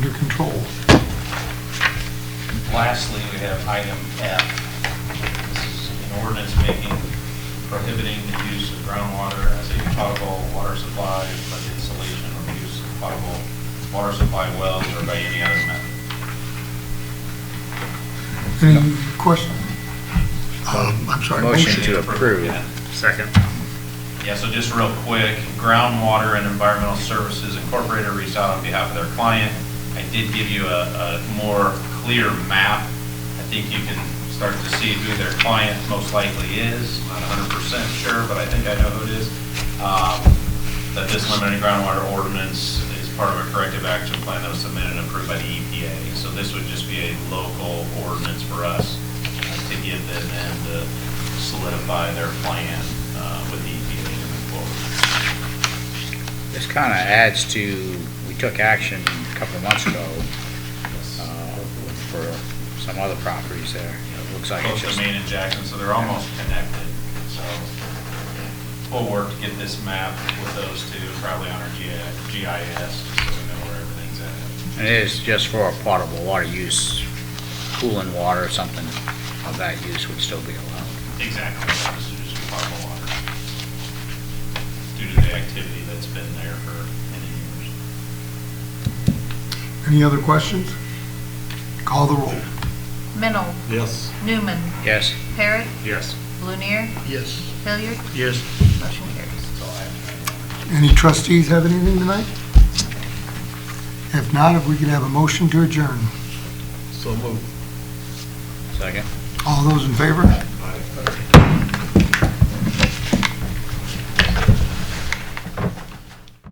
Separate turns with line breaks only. Lastly, we have item F. This is an ordinance making prohibiting the use of groundwater as a potable water supply by the installation or use of potable water supply wells or by any other method.
Any question?
Um, I'm sorry.
Motion to approve.
Yeah.
Second.
Yeah, so just real quick, Groundwater and Environmental Services Incorporated reached out on behalf of their client. I did give you a, a more clear map. I think you can start to see who their client most likely is. Not hundred percent sure, but I think I know who it is. Um, That this limited groundwater ordinance is part of a corrective action plan that was submitted and approved by the EPA. So this would just be a local ordinance for us uh, to give them and to solidify their plan uh, with the EPA to move forward.
This kind of adds to, we took action a couple of months ago uh, for some other properties there. It looks like it's
Both
just,
Domain and Jackson, so they're almost connected. So we'll work to get this map with those two, probably on our G- GIS, so we know where everything's at.
it is just for a potable water use, cooling water or something of that use would still be allowed.
Exactly, this is just potable water. Due to the activity that's been there for many years.
Any other questions? Call the roll.
Mennel,
Yes.
Newman,
Yes?
Parrot,
Yes.
Lunier,
Yes.
Hilliard,
Yes.
motion carries.
That's all I have tonight.
Any trustees have anything tonight? If not, if we could have a motion to adjourn.
So moved.
Second?
All those in favor?